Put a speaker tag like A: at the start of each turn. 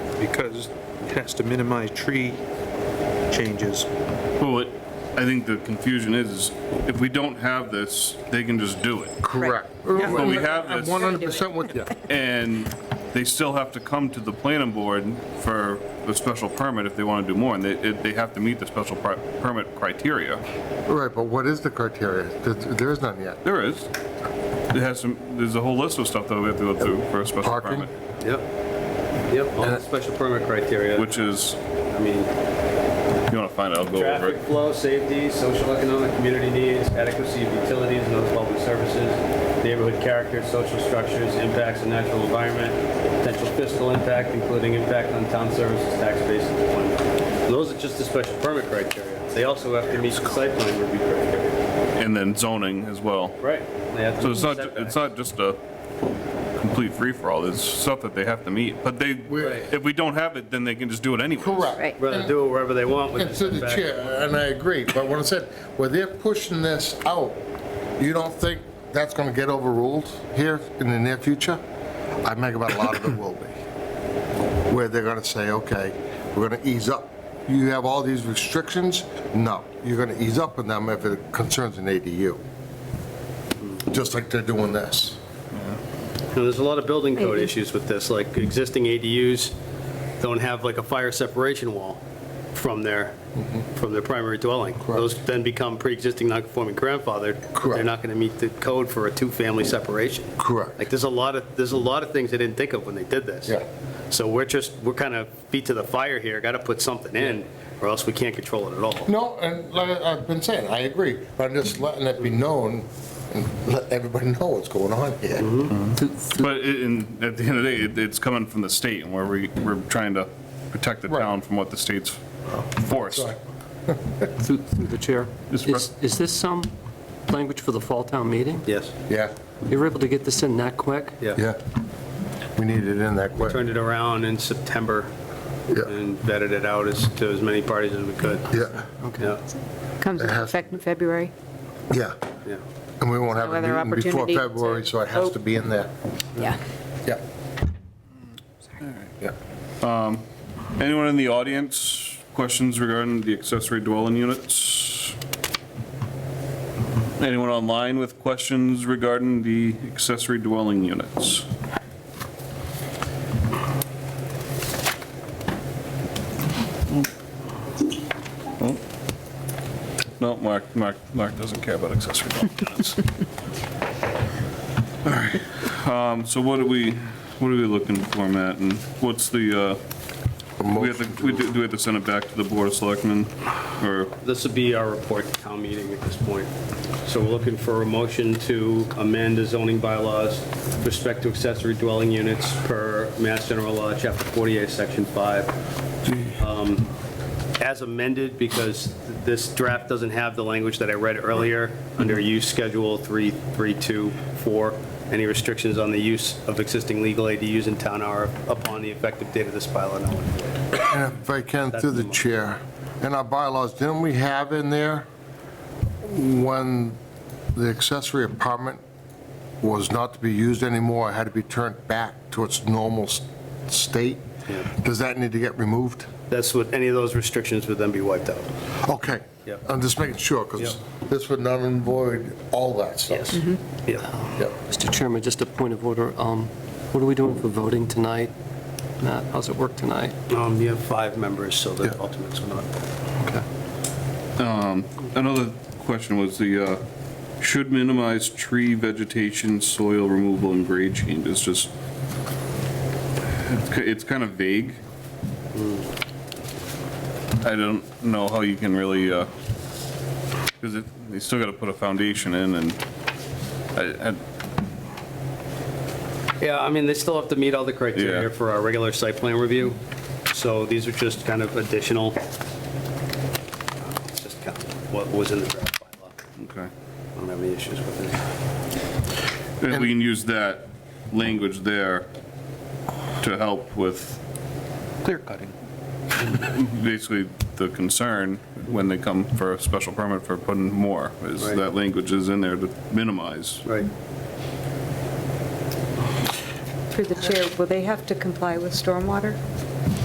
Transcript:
A: because it has to minimize tree changes.
B: Well, it, I think the confusion is, is if we don't have this, they can just do it.
C: Correct.
B: But we have
C: I'm
B: this,
C: 100% with you.
B: and they still have to come to the planning board for the special permit if they want to do more, and they, it- they have to meet the special per- permit criteria.
C: Right, but what is the criteria? There- There is none yet.
B: There is. It has some, there's a whole list of stuff that we have to go through for a special
C: Parking?
B: permit,
D: Yep. Yep, all the special permit criteria,
B: which is,
D: I mean,
B: you want to find it, I'll go over
D: traffic
B: it.
D: flow, safety, social, economic, community needs, adequacy of utilities and other public services, neighborhood character, social structures, impacts on natural environment, potential fiscal impact, including impact on town services, tax base, and employment. Those are just the special permit criteria. They also have to meet the site plan review criteria.
B: And then zoning as well.
D: Right. They have to
B: So it's
D: meet
B: not,
D: setbacks.
B: it's not just a complete free-for-all, there's stuff that they have to meet, but they,
C: Right.
B: if we don't have it, then they can just do it anyway.
C: Correct.
D: Rather do it wherever they want with
C: And
D: the
C: to the
D: setback.
C: chair, and I agree, but when I said, where they're pushing this out, you don't think that's going to get overruled here in the near future? I make about a lot of it will be. Where they're going to say, okay, we're going to ease up. You have all these restrictions? No, you're going to ease up on them if it concerns an ADU. Just like they're doing this.
D: Now, there's a lot of building code
E: Maybe.
D: issues with this, like existing ADUs don't have like a fire separation wall from their,
C: Mm-hmm.
D: from their primary dwelling. Those then become pre-existing non-conforming grandfathered. They're
C: Correct.
D: not going to meet the code for a two-family separation.
C: Correct.
D: Like, there's a lot of, there's a lot of things they didn't think of when they did this.
C: Yeah.
D: So we're just, we're kind of beat to the fire here, got to put something in, or else we can't control it at all.
C: No, and like I- I've been saying, I agree, but I'm just letting it be known and let everybody know what's going on here.
B: But it- in, at the end of the day, it- it's coming from the state, and where we, we're trying to protect the
C: Right.
B: town from what the state's forced.
C: Sorry.
F: Through through the chair.
B: Yes,
F: Is is this some language for the fall town meeting?
D: Yes,
C: Yeah,
F: You were able to get this in that quick?
D: yeah.
C: yeah. We need it in that quick.
D: Turned it around in September
C: Yeah,
D: and vetted it out as, to as many parties as we could.
C: yeah,
D: Yeah,
E: Comes into
C: It has-
E: effect in February.
C: yeah.
D: yeah.
C: And we won't have
E: No
C: a
E: other
C: meeting before
E: opportunity to
C: February, so it has to
E: vote. Mm,
C: be in there.
E: Yeah.
C: Yeah. Yeah.
B: Anyone in the audience, questions regarding the accessory dwelling units? Anyone online with questions regarding the accessory dwelling units? Oh. No, Mark, Mark, Mark doesn't care about accessory dwelling units. All right, um, so what are we, what are we looking for, Matt, and what's the, uh, we have to, we do do we have to send it back to the Board of Selectmen, or,
D: This would be our report to town meeting at this point. So we're looking for a motion to amend the zoning bylaws with respect to accessory dwelling units per Mass General Law, Chapter 48, Section 5. Um, As amended, because this draft doesn't have the language that I read earlier, under Use Schedule 3324, any restrictions on the use of existing legal ADUs in town are upon the effective date of this bylaw. No.
C: And if I can, through the
D: That's-
C: chair, in our bylaws, didn't we have in there when the accessory apartment was not to be used anymore, had to be turned back to its normal s- state?
D: Yeah.
C: Does that need to get removed?
D: That's what, any of those restrictions would then be wiped out.
C: Okay.
D: Yeah.
C: I'm just making sure, because
D: Yeah.
C: this would not void all that stuff. Mm-hmm.
D: Yeah.
C: Yeah.
F: Mr. Chairman, just a point of order. Um, What are we doing for voting tonight? Matt, how's it work tonight?
D: Um, you have five members, so the
C: Yeah.
D: alternates will not.
F: Okay.
B: another question was the, uh, should minimize tree vegetation, soil removal, and grade change, it's just, it's ki- it's kind of vague. I don't know how you can really, uh 'cause because it, you still gotta put a foundation in, and I, I,
D: Yeah, I mean, they still have to meet all the criteria
B: Yeah.
D: for our regular site plan review, so these are just kind of additional, it's just kind of what was in the draft bylaw.
B: okay.
D: I don't have any issues with it.
B: And we can use that language there to help with
F: Clear cutting.
B: basically the concern when they come for a special permit for putting more, is
D: Right.
B: that language is in there to minimize.
D: Right.
E: Through the chair, will they have to comply with stormwater?